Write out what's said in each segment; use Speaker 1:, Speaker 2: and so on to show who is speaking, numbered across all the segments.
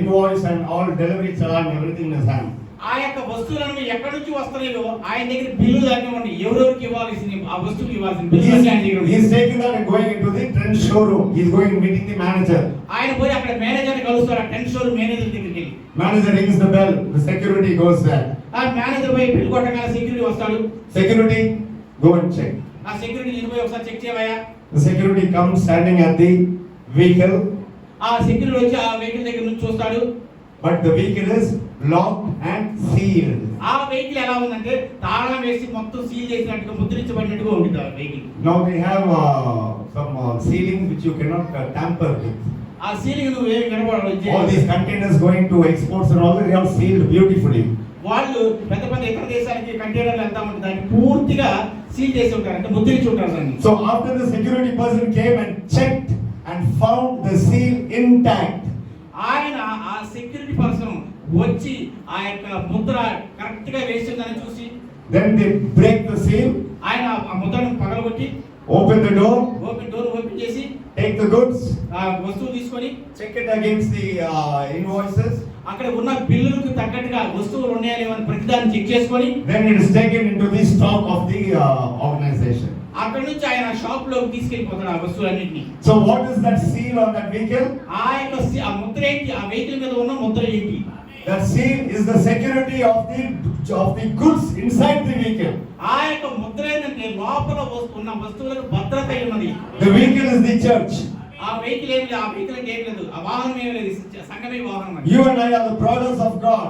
Speaker 1: invoice and all delivery charge, everything in his hand.
Speaker 2: ఆ యొక్క వస్తువులను ఎక్కడి నుంచి వస్తున్నాయో ఆయన దగ్గర బిల్లులు అన్నీ ఉన్నాయి ఎవరెవరికి ఇవ్వాల్సింది ఆ వస్తువుకి ఇవ్వాల్సిన బిల్లులు
Speaker 1: He's,
Speaker 2: అన్నీ ఆయన దగ్గర ఉన్నాయి.
Speaker 1: he's taking that and going into the trend showroom. He's going meeting the manager.
Speaker 2: ఆయన పోయి అక్కడ మేనేజర్ కలుస్తారు ఆ టెన్ షోర్ మేనేజర్ దగ్గరికి వెళ్ళి
Speaker 1: Manager rings the bell, the security goes there.
Speaker 2: ఆ మేనేజర్ పోయి బిల్ కొట్టగానే సెక్యూరిటీ వస్తాడు
Speaker 1: Security, go and check.
Speaker 2: ఆ సెక్యూరిటీ నేను పోయి ఒకసారి చెక్ చేయవయ్యా
Speaker 1: The security comes standing at the vehicle,
Speaker 2: ఆ సెక్యూరిటీ వచ్చి ఆ వెహికల్ దగ్గర నుంచి చూస్తాడు
Speaker 1: but the vehicle is locked and sealed.
Speaker 2: ఆ వెహికల్ ఎలా ఉందంటే తాళం వేసి మొత్తం సీల్ చేసినట్టుగా ముద్రించబడినట్టుగా ఉంటుంది ఆ vehicle
Speaker 1: Now we have uh, some uh, ceilings which you cannot uh, tamper with.
Speaker 2: ఆ సీలింగ్ నువ్వు ఏమి
Speaker 1: All these
Speaker 2: కనబడాలి
Speaker 1: containers going to exports and all, they are sealed beautifully.
Speaker 2: వాళ్ళు పెద్ద పెద్ద ఇతర దేశానికి కంటైనర్లు వెళ్తా ఉంటారు దాన్ని పూర్తిగా సీల్ చేసి ఉంటారు అంటే ముద్రించి ఉంటారు దాన్ని
Speaker 1: So after the security person came and checked and found the seal intact,
Speaker 2: ఆయన ఆ సెక్యూరిటీ పర్సన్ వచ్చి ఆ యొక్క ముద్ర కరెక్ట్ గా వేసిందని చూసి
Speaker 1: then they break the seal,
Speaker 2: ఆయన ఆ ముద్రను పగలగొట్టి
Speaker 1: open the door,
Speaker 2: open door open చేసి
Speaker 1: take the goods,
Speaker 2: ఆ వస్తువు తీసుకొని
Speaker 1: check it against the uh, invoices,
Speaker 2: అక్కడ ఉన్న బిల్లులకు తగ్గట్టుగా వస్తువులు ఉన్నాయా లేవని ప్రతిదాన్ని చెక్ చేసుకొని
Speaker 1: then it is taken into the stock of the uh, organization.
Speaker 2: అక్కడ నుంచి ఆయన షాప్ లోకి తీసుకెళ్లిపోతాడు ఆ వస్తువులన్నింటినీ
Speaker 1: So what is that seal on that vehicle?
Speaker 2: ఆ యొక్క సి- ఆ ముద్ర ఏంటి ఆ వెహికల్ మీద ఉన్న ముద్ర ఏంటి
Speaker 1: That seal is the security of the of the goods inside the vehicle.
Speaker 2: ఆ యొక్క ముద్ర ఏంటంటే లోపల వస్తు- ఉన్న వస్తువులకు భద్రత అయి ఉన్నది
Speaker 1: The vehicle is the church.
Speaker 2: ఆ వెహికల్ ఏం లేదు ఆ వెహికల్ ఏం లేదు ఆ వాహనం ఏం లేదు స- సంఘమే వాహనం అది.
Speaker 1: You and I are the brothers of God,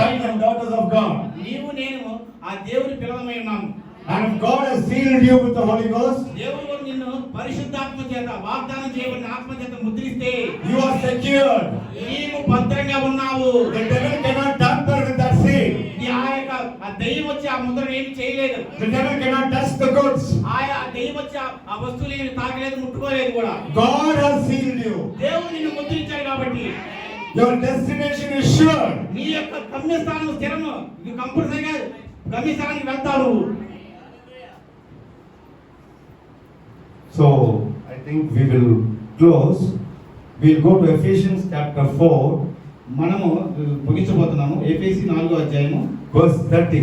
Speaker 1: sons and daughters of God.
Speaker 2: నీవు నేను ఆ దేవుని పిల్లలమై ఉన్నాము
Speaker 1: And if God has sealed you with the Holy Ghost,
Speaker 2: దేవుడు నిన్ను పరిశుద్ధాత్మ చేత వాగ్దానం చేయబడిన ఆత్మ చేత ముద్రిస్తే
Speaker 1: you are secured.
Speaker 2: నీవు భద్రంగా ఉన్నావు
Speaker 1: The devil cannot tamper with that seal.
Speaker 2: ఈ ఆ యొక్క ఆ దయ్యం వచ్చి ఆ ముద్ర ఏమి చేయలేదు
Speaker 1: The devil cannot touch the goods.
Speaker 2: ఆయా దెయ్యం వచ్చి ఆ- ఆ వస్తువులు ఏమి తాకలేదు ముట్టుకోలేదు కూడా
Speaker 1: God has sealed you.
Speaker 2: దేవుడు నిన్ను ముద్రించాడు కాబట్టి
Speaker 1: Your destination is sure.
Speaker 2: నీ యొక్క గమ్యస్థానం స్థిరము నువ్వు కంపల్సరిగా గమ్యస్థానానికి వెళ్తావు
Speaker 1: So I think we will close. We'll go to Ephesians chapter 4,
Speaker 2: మనము ముగించబోతున్నాము ఏపీసీ నాలుగో అధ్యాయము
Speaker 1: verse 30.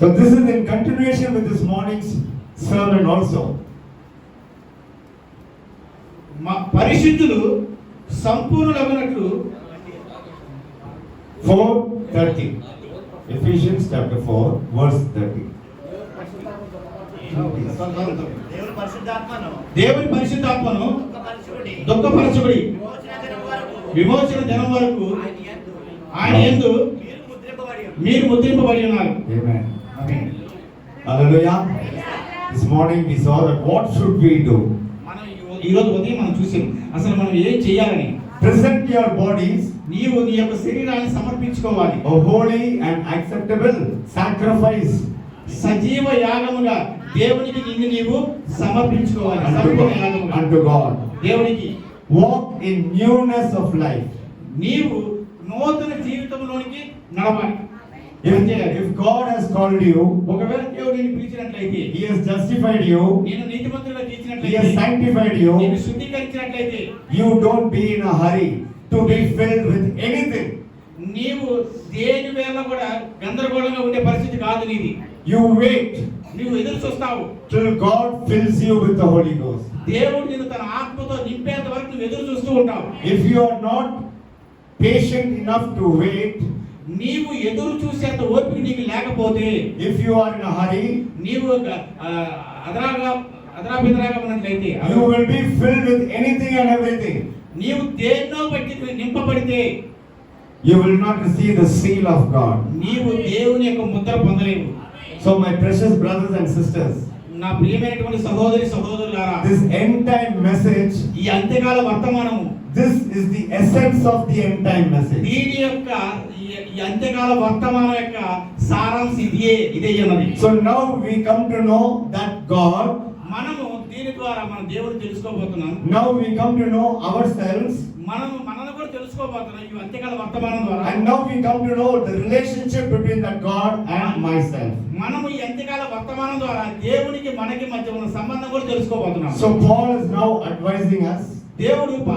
Speaker 1: So this is in continuation with this morning's sermon also.
Speaker 2: మా పరిశుద్ధులు సంపూర్ణులగునట్లు
Speaker 1: 4 30. Ephesians chapter 4, verse 30.
Speaker 3: దేవుడు పరిశుద్ధాత్మను
Speaker 2: దేవుని పరిశుద్ధాత్మను
Speaker 3: ఒక పరిశుద్ధుడి
Speaker 2: దుఃఖపరచుడి
Speaker 3: విమోచన దినం వరకు
Speaker 2: విమోచన దినం వరకు
Speaker 3: ఆయన
Speaker 2: ఆయన
Speaker 3: యందు
Speaker 2: యందు
Speaker 3: మీరు ముద్రింపబడి ఉన్నారు.
Speaker 2: మీరు ముద్రింపబడి ఉన్నారు
Speaker 1: Amen. Hallelujah. This morning we saw that what should we do?
Speaker 2: మనం ఈ రోజు ఉదయం మనం చూసాం అసలు మనం ఏం చేయాలని
Speaker 1: Present your bodies
Speaker 2: నీవు నీ యొక్క శరీరాన్ని సమర్పించుకోవాలి
Speaker 1: a holy and acceptable sacrifice
Speaker 2: సజీవ యాగముగా దేవునికి నిన్ను నీవు సమర్పించుకోవాలి
Speaker 1: unto
Speaker 2: సంపూర్ణ
Speaker 1: God.
Speaker 2: యాగముగా.
Speaker 1: Unto God.
Speaker 2: దేవునికి
Speaker 1: Walk in newness of life.
Speaker 2: నీవు నూతన జీవితంలోనికి నడవాలి
Speaker 1: If, if God has called you,
Speaker 2: ఒకవేళ దేవుడు నిన్ను పిలిచినట్లయితే
Speaker 1: He has justified you,
Speaker 2: నేను నీతిమంతులుగా
Speaker 1: He has
Speaker 2: తీర్చినట్లయితే
Speaker 1: sanctified
Speaker 2: నేను
Speaker 1: you,
Speaker 2: శుద్ధీకరించినట్లయితే
Speaker 1: you don't be in a hurry to be filled with anything.
Speaker 2: నీవు దేని వేళ కూడా గందరగోళంగా ఉండే పరిస్థితి కాదు నీది
Speaker 1: You wait
Speaker 2: నువ్వు ఎదురు చూస్తావు
Speaker 1: till God fills you with the Holy Ghost.
Speaker 2: దేవుడు నిన్ను తన ఆత్మతో నింపేంత వరకు నువ్వు ఎదురు చూస్తూ ఉంటావు
Speaker 1: If you are not patient enough to wait,
Speaker 2: నీవు ఎదురు చూసేంత ఓపిక నీకు లేకపోతే
Speaker 1: if you are in a hurry,
Speaker 2: నీవు ఒక, ఆ, అదరాగా అదరాబిదరాగా ఉన్నట్లయితే
Speaker 1: you will be filled with anything and everything.
Speaker 2: నీవు దేన్నో బట్టి నువ్వు నింపబడితే
Speaker 1: You will not receive the seal of God.
Speaker 2: నీవు దేవుని యొక్క Mudra పొందలేవు
Speaker 1: So, my precious brothers and sisters,
Speaker 2: నా ప్రియమైనటువంటి సహోదరి సహోదరులారా
Speaker 1: this end time message,
Speaker 2: ఈ అంత్యకాల వర్తమానము
Speaker 1: this is the essence of the end time message.
Speaker 2: దీని యొక్క ఈ- ఈ అంత్యకాల వర్తమానం యొక్క సారాంశం ఇదే ఇదే అన్నది
Speaker 1: So, now we come to know that God,
Speaker 2: మనము దీని ద్వారా మన దేవుడు తెలుసుకోబోతున్నాం
Speaker 1: now we come to know ourselves,
Speaker 2: మనము మనల్ని కూడా తెలుసుకోబోతున్నాం ఈ అంత్యకాల వర్తమానం ద్వారా
Speaker 1: and now we come to know the relationship between that God and myself.
Speaker 2: మనము ఈ అంత్యకాల వర్తమానం ద్వారా దేవునికి మనకి మధ్య ఉన్న సంబంధం కూడా తెలుసుకోబోతున్నాం
Speaker 1: So, Paul is now advising us
Speaker 2: దేవుడు